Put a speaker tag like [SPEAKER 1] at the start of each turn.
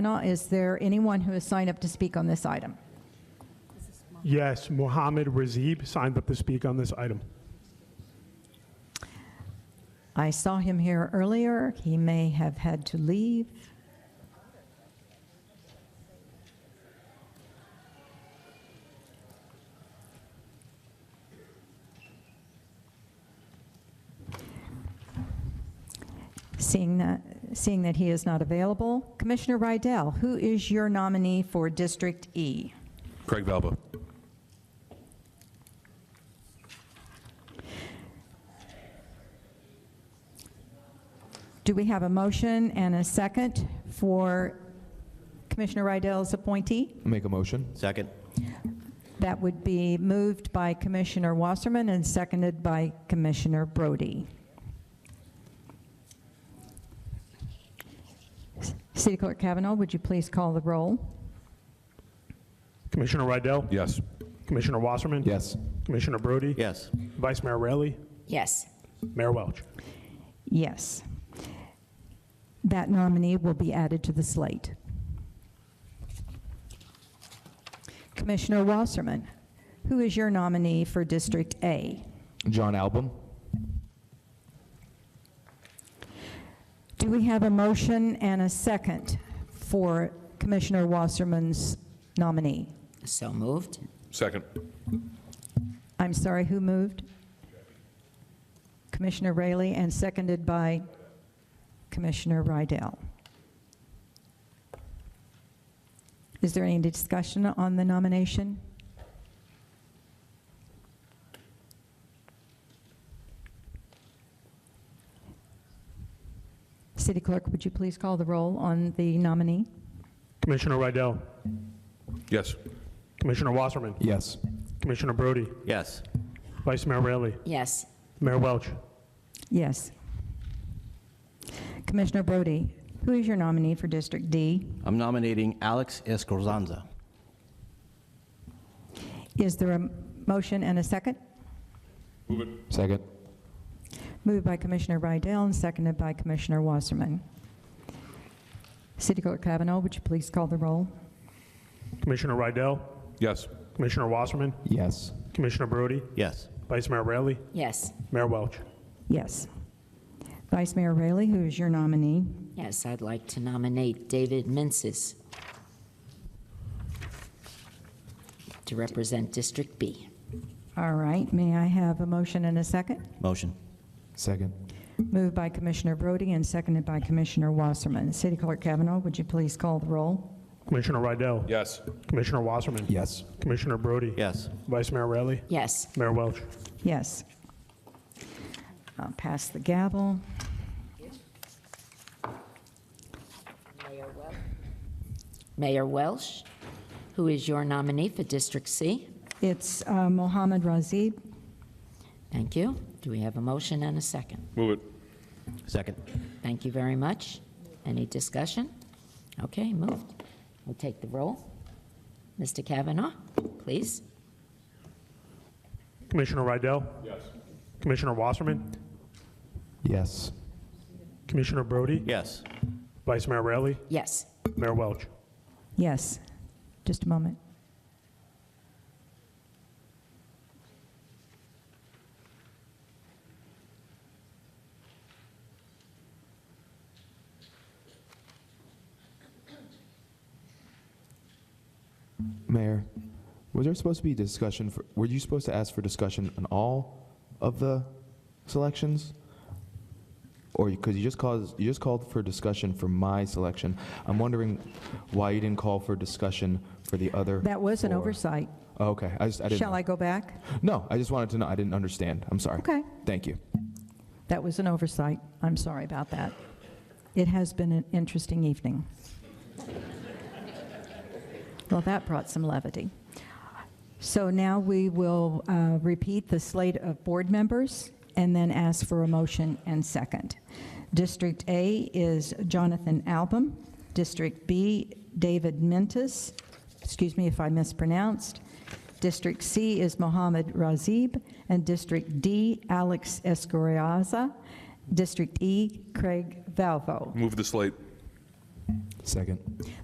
[SPEAKER 1] Now, Is there anyone who has signed up to speak on this item?
[SPEAKER 2] Yes, Mohammed Razib signed up to speak on this item.
[SPEAKER 1] I saw him here earlier. He may have had to leave. Seeing that, seeing that he is not available, Commissioner Rydell, who is your nominee for District E?
[SPEAKER 3] Craig Valbo.
[SPEAKER 1] Do we have a motion and a second for Commissioner Rydell's appointee?
[SPEAKER 4] Make a motion.
[SPEAKER 5] Second.
[SPEAKER 1] That would be moved by Commissioner Wasserman and seconded by Commissioner Brody. City Clerk Kavanaugh, would you please call the roll?
[SPEAKER 2] Commissioner Rydell?
[SPEAKER 3] Yes.
[SPEAKER 2] Commissioner Wasserman?
[SPEAKER 4] Yes.
[SPEAKER 2] Commissioner Brody?
[SPEAKER 5] Yes.
[SPEAKER 2] Vice Mayor Raely?
[SPEAKER 6] Yes.
[SPEAKER 2] Mayor Welch?
[SPEAKER 1] Yes. That nominee will be added to the slate. Commissioner Wasserman, who is your nominee for District A?
[SPEAKER 4] John Album.
[SPEAKER 1] Do we have a motion and a second for Commissioner Wasserman's nominee?
[SPEAKER 6] So moved?
[SPEAKER 3] Second.
[SPEAKER 1] I'm sorry, who moved? Commissioner Raley, and seconded by Commissioner Rydell. Is there any discussion on the nomination? City Clerk, would you please call the roll on the nominee?
[SPEAKER 2] Commissioner Rydell?
[SPEAKER 3] Yes.
[SPEAKER 2] Commissioner Wasserman?
[SPEAKER 4] Yes.
[SPEAKER 2] Commissioner Brody?
[SPEAKER 5] Yes.
[SPEAKER 2] Vice Mayor Raely?
[SPEAKER 6] Yes.
[SPEAKER 2] Mayor Welch?
[SPEAKER 1] Yes. Commissioner Brody, who is your nominee for District D?
[SPEAKER 5] I'm nominating Alex Escrosanza.
[SPEAKER 1] Is there a motion and a second?
[SPEAKER 4] Second.
[SPEAKER 1] Moved by Commissioner Rydell and seconded by Commissioner Wasserman. City Clerk Kavanaugh, would you please call the roll?
[SPEAKER 2] Commissioner Rydell?
[SPEAKER 3] Yes.
[SPEAKER 2] Commissioner Wasserman?
[SPEAKER 4] Yes.
[SPEAKER 2] Commissioner Brody?
[SPEAKER 5] Yes.
[SPEAKER 2] Vice Mayor Raely?
[SPEAKER 6] Yes.
[SPEAKER 2] Mayor Welch?
[SPEAKER 1] Yes. Vice Mayor Raley, who is your nominee?
[SPEAKER 6] Yes, I'd like to nominate David Mensis to represent District B.
[SPEAKER 1] All right, may I have a motion and a second?
[SPEAKER 5] Motion.
[SPEAKER 4] Second.
[SPEAKER 1] Moved by Commissioner Brody and seconded by Commissioner Wasserman. City Clerk Kavanaugh, would you please call the roll?
[SPEAKER 2] Commissioner Rydell?
[SPEAKER 3] Yes.
[SPEAKER 2] Commissioner Wasserman?
[SPEAKER 4] Yes.
[SPEAKER 2] Commissioner Brody?
[SPEAKER 5] Yes.
[SPEAKER 2] Vice Mayor Raely?
[SPEAKER 6] Yes.
[SPEAKER 2] Mayor Welch?
[SPEAKER 1] Yes. I'll pass the gavel.
[SPEAKER 6] Mayor Welsh, who is your nominee for District C.
[SPEAKER 1] It's uh, Mohammed Razib.
[SPEAKER 6] Thank you. Do we have a motion and a second?
[SPEAKER 3] Move it.
[SPEAKER 5] Second.
[SPEAKER 6] Thank you very much. Any discussion? Okay, moved. We'll take the roll. Mr. Kavanaugh, please.
[SPEAKER 2] Commissioner Rydell? Yes. Commissioner Wasserman?
[SPEAKER 4] Yes.
[SPEAKER 2] Commissioner Brody?
[SPEAKER 5] Yes.
[SPEAKER 2] Vice Mayor Raely?
[SPEAKER 6] Yes.
[SPEAKER 2] Mayor Welch?
[SPEAKER 1] Yes, just a moment.
[SPEAKER 4] Mayor, was there supposed to be discussion for, were you supposed to ask for discussion on all of the selections? Or, because you just caused, you just called for discussion for my selection. I'm wondering why you didn't call for discussion for the other.
[SPEAKER 1] That was an
[SPEAKER 4] four.
[SPEAKER 1] oversight.
[SPEAKER 4] Oh, Okay, I just, I didn't.
[SPEAKER 1] Shall
[SPEAKER 4] know.
[SPEAKER 1] I go back?
[SPEAKER 4] No, I just wanted to know. I didn't understand. I'm sorry.
[SPEAKER 1] Okay.
[SPEAKER 4] Thank you.
[SPEAKER 1] That was an oversight. I'm sorry about that. It has been an interesting evening. Well, that brought some levity. So now we will uh, repeat the slate of board members and then ask for a motion and second. District A is Jonathan Album. District B, David Mentis. Excuse me if I mispronounced. District C is Mohammed Razib. And District D, Alex Escoriaza. District E, Craig Valvo.
[SPEAKER 3] Move the slate.
[SPEAKER 4] Second.